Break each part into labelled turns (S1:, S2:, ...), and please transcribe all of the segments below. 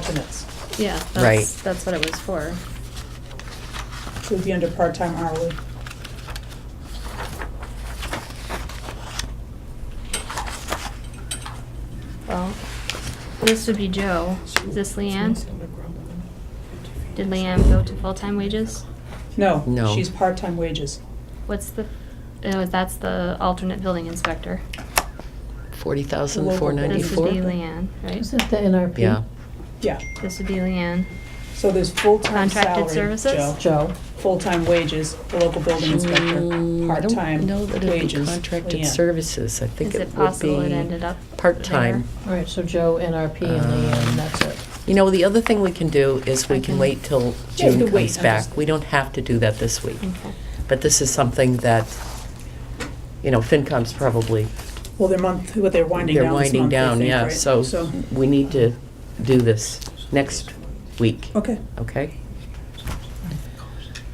S1: alternates.
S2: Yeah,
S3: Right.
S2: that's, that's what it was for.
S1: It would be under part-time hourly.
S2: Well, this would be Joe. Is this Leanne? Did Leanne go to full-time wages?
S1: No.
S3: No.
S1: She's part-time wages.
S2: What's the, oh, that's the alternate building inspector.
S3: Forty thousand,
S1: Local
S3: four
S2: This would be
S3: ninety-four?
S2: Leanne, right?
S4: Is that the NRP?
S3: Yeah,
S1: Yeah,
S2: This would be Leanne.
S1: so there's full-time salary.
S2: Contracted services?
S1: Joe.
S4: Joe,
S1: Full-time wages, the local building inspector,
S3: Mm, Hmm, I don't
S1: part-time
S3: know that it'd be
S1: wages.
S3: contracted
S1: Leanne.
S3: services, I think
S2: Is
S3: it
S2: it
S3: would
S2: possible it ended
S3: be
S2: up
S3: part-time.
S4: all right, so Joe, NRP, and Leanne, and that's it.
S3: Um, You know, the other thing we can do is we
S2: I
S3: can
S2: can-
S3: wait till
S1: Yeah, you
S3: June
S1: could wait,
S3: comes
S1: I'm
S3: back.
S1: just-
S3: We don't have to do that this week.
S2: there? Okay.
S3: But this is something that, you know, FinCom's probably,
S1: Well, their month, what they're winding
S3: they're
S1: down this
S3: winding
S1: month, I
S3: down,
S1: think,
S3: yeah.
S1: right?
S3: So we need to do this next week,
S1: Okay,
S3: okay?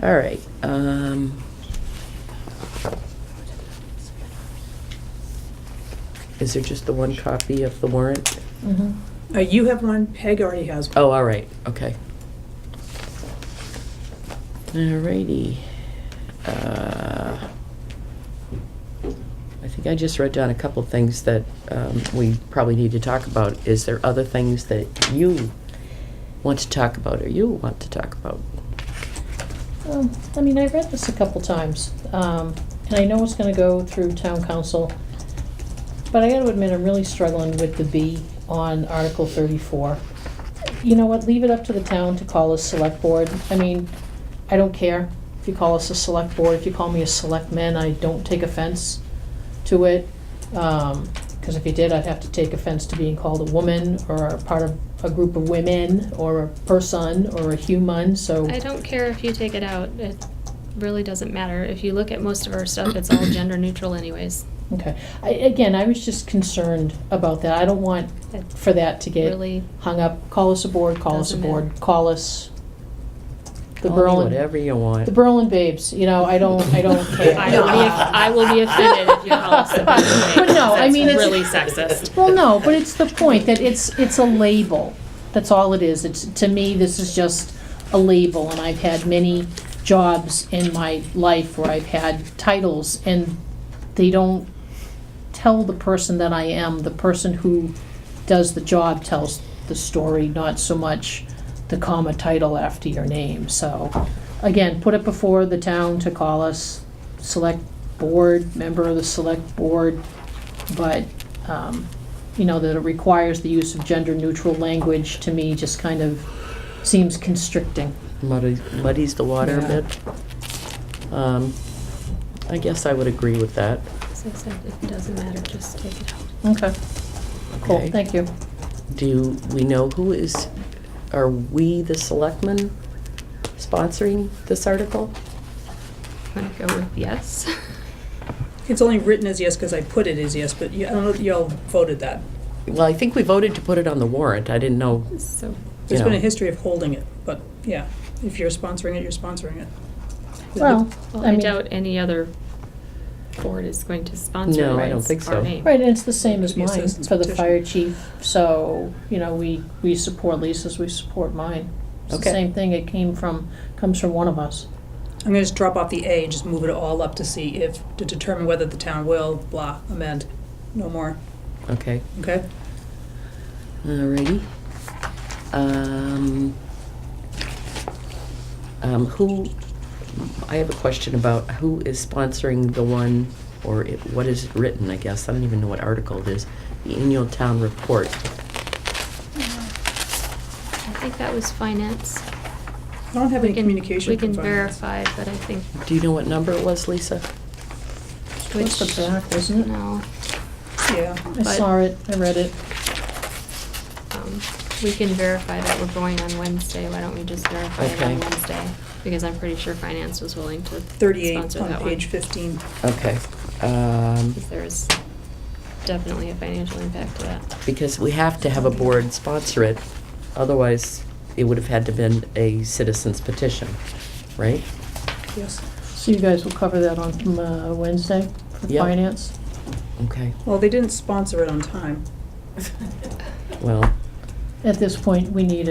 S3: All right. um, Is there just the one copy of the warrant?
S4: Mhm.
S1: Uh, you have one, Peg already has one.
S3: Oh, all right, okay. Alrighty. Uh, I think I just wrote down a couple things that um, we probably need to talk about. Is there other things that you want to talk about or you want to talk about?
S4: Um, I mean, I read this a couple times, um, and I know it's gonna go through town council, but I gotta admit, I'm really struggling with the B on Article thirty-four. You know what, leave it up to the town to call us select board, I mean, I don't care if you call us a select board, if you call me a selectman, I don't take offense to it. Um 'cause cause if you did, I'd have to take offense to being called a woman, or a part of a group of women, or a person, or a human, so.
S2: I don't care if you take it out. It really doesn't matter. If you look at most of our stuff, it's all gender neutral anyways.
S4: Okay, I, again, I was just concerned about that, I don't want
S2: It
S4: for that to get
S2: really,
S4: hung up, call us aboard, call us
S2: Doesn't matter.
S4: aboard, call us the
S3: Call me
S4: Berlin,
S3: Whatever you want.
S4: the Berlin babes, you know, I don't, I don't care. Uh,
S2: I will be, I will be offended if you call us a bitch.
S4: But no, I mean,
S2: That's
S4: it's-
S2: really sexist.
S4: Well, no, but it's the point that it's, it's a label. That's all it is. It's, to me, this is just a label, and I've had many jobs in my life where I've had titles, and they don't tell the person that I am. The person who does the job tells the story, not so much the comma title after your name. So, again, put it before the town to call us, select board, member of the select board, but, um, you know, that it requires the use of gender-neutral language, to me, just kind of seems constricting.
S3: Muddies muddies the water a
S4: Yeah.
S3: bit. Um, I guess I would agree with that.
S2: As I said, it doesn't matter, just take it out.
S4: Okay, cool,
S3: okay?
S4: thank you.
S3: Do we know who is, are we, the selectmen, sponsoring this article?
S2: I'm gonna go with yes.
S1: It's only written as yes because I put it as yes, but you, I don't know if y'all voted that.
S3: Well, I think we voted to put it on the warrant. I didn't know,
S2: So,
S3: you
S1: There's been a
S3: know.
S1: history of holding it, but yeah, if you're sponsoring it, you're sponsoring it.
S4: Well,
S2: well,
S4: I
S2: I
S4: mean-
S2: doubt any other board is going to sponsor
S3: No, I
S2: it.
S3: don't
S2: It's
S3: think so.
S2: our name.
S4: Right, and it's the same as
S1: Be a
S4: mine
S1: citizen's
S4: for the
S1: petition.
S4: fire chief, so, you know, we, we support Lisa's, we support mine. It's the
S3: Okay.
S4: same thing, it came from, comes from one of us.
S1: I'm gonna just drop off the A and just move it all up to see if, to determine whether the town will, blah, amend. No more,
S3: Okay,
S1: okay?
S3: alrighty. Um, um, who, I have a question about who is sponsoring the one, or it- what is it written, I guess? I don't even know what article it is. The annual town report.
S2: I think that was finance.
S1: I don't have
S2: We
S1: any
S2: can-
S1: communication from
S2: We can
S1: finance.
S2: verify, but I think
S3: Do you know what number it was, Lisa?
S4: It's
S2: which,
S4: the back, isn't it?
S2: no.
S1: Yeah,
S4: I saw it, I read it.
S2: um, We can verify that we're going on Wednesday. Why don't we just verify it
S3: Okay.
S2: on Wednesday? Because I'm pretty sure finance was willing to
S1: thirty-eight
S2: sponsor
S1: on
S2: that one.
S1: page fifteen.
S3: Okay. Um,
S2: Because there is definitely a financial impact to that.
S3: because we have to have a board sponsor it, otherwise it would have had to been a citizen's petition, right?
S1: Yes.
S4: So you guys will cover that on uh, Wednesday for
S3: Yep.
S4: finance?
S3: Okay,
S1: Well, they didn't sponsor it on time.
S3: well,
S4: at this point, we need a